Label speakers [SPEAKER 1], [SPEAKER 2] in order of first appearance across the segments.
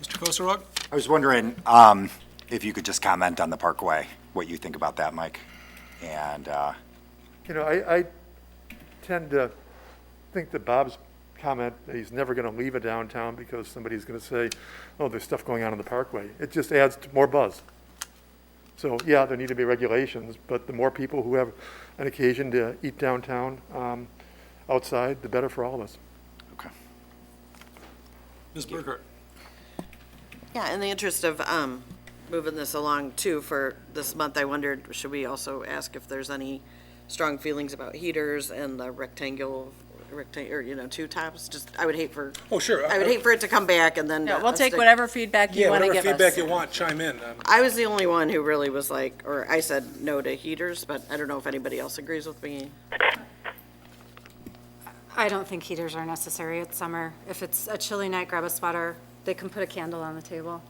[SPEAKER 1] Mr. Kosarog?
[SPEAKER 2] I was wondering um, if you could just comment on the Parkway, what you think about that, Mike? And, uh,
[SPEAKER 3] You know, I, I tend to think that Bob's comment, that he's never going to leave a downtown because somebody's going to say, oh, there's stuff going on in the parkway. It just adds to more buzz. So, yeah, there need to be regulations, but the more people who have an occasion to eat downtown, um, outside, the better for all of us.
[SPEAKER 2] okay.
[SPEAKER 1] Ms. Burkhart?
[SPEAKER 4] Yeah, in the interest of um, moving this along too, for this month, I wondered, should we also ask if there's any strong feelings about heaters and the rectangle, rectangle, or, you know, two tops? Just, I would hate for.
[SPEAKER 1] Oh, sure.
[SPEAKER 4] I would hate for it to come back and then.
[SPEAKER 5] No, we'll
[SPEAKER 4] us
[SPEAKER 5] take
[SPEAKER 4] to-
[SPEAKER 5] whatever feedback
[SPEAKER 1] Yeah,
[SPEAKER 5] you want to
[SPEAKER 1] whatever
[SPEAKER 5] give
[SPEAKER 1] feedback
[SPEAKER 5] us.
[SPEAKER 1] you want, chime in. Um,
[SPEAKER 4] I was the only one who really was like, or I said no to heaters, but I don't know if anybody else agrees with me.
[SPEAKER 6] I don't think heaters are necessary. It's summer. If it's a chilly night, grab a sweater. They can put a candle on the table.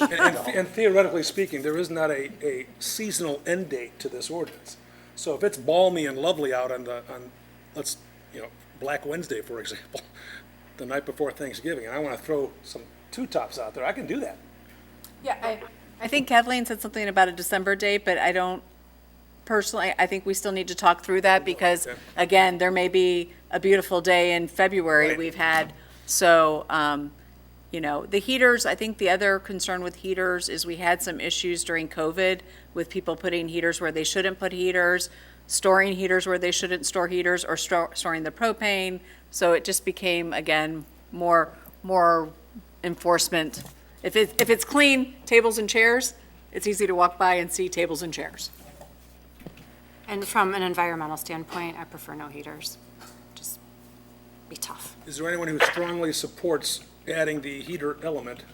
[SPEAKER 1] And and the- and theoretically speaking, there is not a, a seasonal end date to this ordinance. So if it's balmy and lovely out on the, on, let's, you know, Black Wednesday, for example, the night before Thanksgiving, and I want to throw some two-tops out there, I can do that.
[SPEAKER 5] Yeah, I, I think Kathleen said something about a December date, but I don't, personally, I think we still need to talk through that because,
[SPEAKER 1] Okay.
[SPEAKER 5] again, there may be a beautiful day in February
[SPEAKER 1] Right.
[SPEAKER 5] we've had. So, um, you know, the heaters, I think the other concern with heaters is we had some issues during COVID with people putting heaters where they shouldn't put heaters, storing heaters where they shouldn't store heaters, or stor- storing the propane. So it just became, again, more, more enforcement. If it, if it's clean, tables and chairs, it's easy to walk by and see tables and chairs.
[SPEAKER 6] And from an environmental standpoint, I prefer no heaters. Just be tough.
[SPEAKER 1] Is there anyone who strongly supports adding the heater element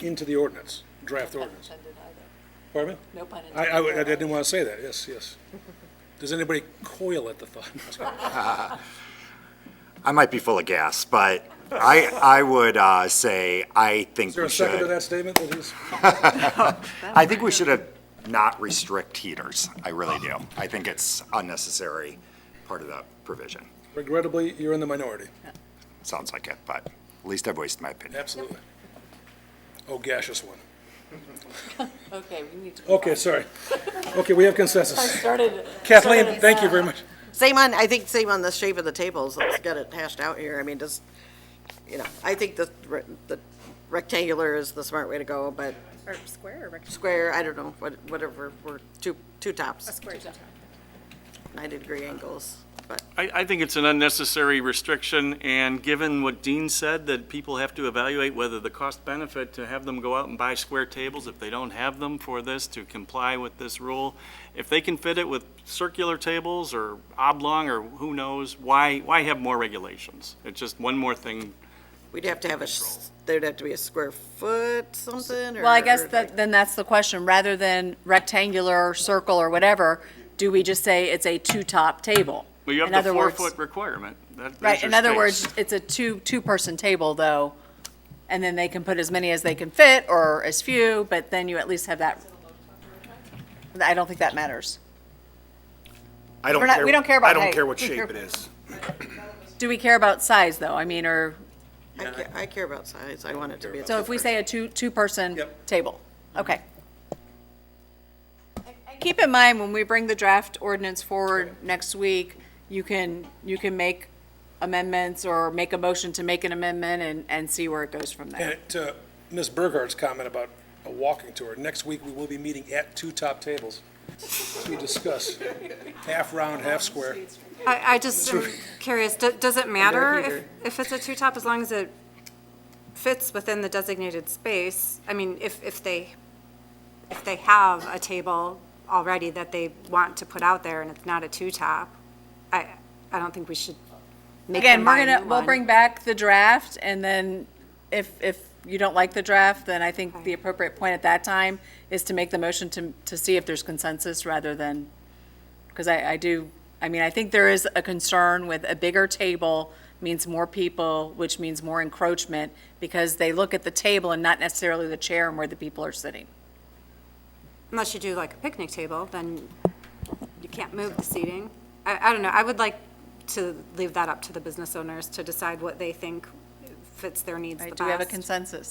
[SPEAKER 1] into the ordinance, draft ordinance? Pardon me?
[SPEAKER 5] No pun
[SPEAKER 1] I, I would- I didn't want to say that, yes, yes. Does anybody coil at the thought?
[SPEAKER 2] I might be full of gas, but I, I would uh, say, I think
[SPEAKER 1] Is there
[SPEAKER 2] we
[SPEAKER 1] a second to
[SPEAKER 2] should,
[SPEAKER 1] that statement that he's?
[SPEAKER 2] I think we should have not restrict heaters. I really do. I think it's unnecessary part of the provision.
[SPEAKER 1] Regrettably, you're in the minority.
[SPEAKER 2] Sounds like it, but at least I've voiced my opinion.
[SPEAKER 1] Absolutely. Oh, gaseous one.
[SPEAKER 5] Okay, we need to.
[SPEAKER 1] Okay, sorry. Okay, we have consensus.
[SPEAKER 5] Started.
[SPEAKER 1] Kathleen, thank you very much.
[SPEAKER 4] Same on, I think same on the shape of the tables, let's get it hashed out here, I mean, just, you know, I think the, re- the rectangular is the smart way to go, but
[SPEAKER 5] Or square or rectangle?
[SPEAKER 4] square, I don't know, what whatever, we're two, two tops,
[SPEAKER 5] Square is up.
[SPEAKER 4] 90-degree angles, but
[SPEAKER 7] I, I think it's an unnecessary restriction, and given what Dean said, that people have to evaluate whether the cost benefit to have them go out and buy square tables if they don't have them for this, to comply with this rule. If they can fit it with circular tables or oblong or who knows, why, why have more regulations? It's just one more thing.
[SPEAKER 4] we'd have to have a, s- there'd have to be a square foot something, or...
[SPEAKER 5] Well, I guess
[SPEAKER 4] or
[SPEAKER 5] that, then that's the question. Rather than rectangular, circle, or whatever, do we just say it's a two-top table?
[SPEAKER 7] Well, you
[SPEAKER 5] In
[SPEAKER 7] have the
[SPEAKER 5] other words-
[SPEAKER 7] four-foot requirement. That- there's
[SPEAKER 5] Right,
[SPEAKER 7] your
[SPEAKER 5] in other
[SPEAKER 7] space.
[SPEAKER 5] words, it's a two, two-person table, though, and then they can put as many as they can fit, or as few, but then you at least have that. I don't think that matters.
[SPEAKER 8] I don't
[SPEAKER 5] We're not-
[SPEAKER 8] care.
[SPEAKER 5] we don't care about
[SPEAKER 8] I don't
[SPEAKER 5] height.
[SPEAKER 8] care what
[SPEAKER 5] We care-
[SPEAKER 8] shape it is.
[SPEAKER 5] Do we care about size, though? I mean, or,
[SPEAKER 4] I ca- I care about size, I want it to be, a-
[SPEAKER 5] so if we say a two, two-person
[SPEAKER 1] Yep.
[SPEAKER 5] table, okay. Keep in mind, when we bring the draft ordinance forward next week, you can, you can make amendments or make a motion to make an amendment and, and see where it goes from there.
[SPEAKER 1] And to Ms. Burghart's comment about a walking tour, next week we will be meeting at two top tables to discuss half round, half square.
[SPEAKER 6] I, I just am curious, do- does it matter if, if it's a two-top as long as it fits within the designated space? I mean, if, if they, if they have a table already that they want to put out there and it's not a two-top, I, I don't think we should make
[SPEAKER 5] Again,
[SPEAKER 6] them buy
[SPEAKER 5] we're
[SPEAKER 6] a
[SPEAKER 5] gonna,
[SPEAKER 6] new
[SPEAKER 5] we'll
[SPEAKER 6] one.
[SPEAKER 5] bring back the draft, and then if, if you don't like the draft, then I think the appropriate point at that time is to make the motion to, to see if there's consensus rather than, because I, I do, I mean, I think there is a concern with a bigger table means more people, which means more encroachment, because they look at the table and not necessarily the chair and where the people are sitting.
[SPEAKER 6] Unless you do like a picnic table, then you can't move the seating. I, I don't know, I would like to leave that up to the business owners to decide what they think fits their needs the
[SPEAKER 5] Right,
[SPEAKER 6] best.
[SPEAKER 5] do we have a consensus?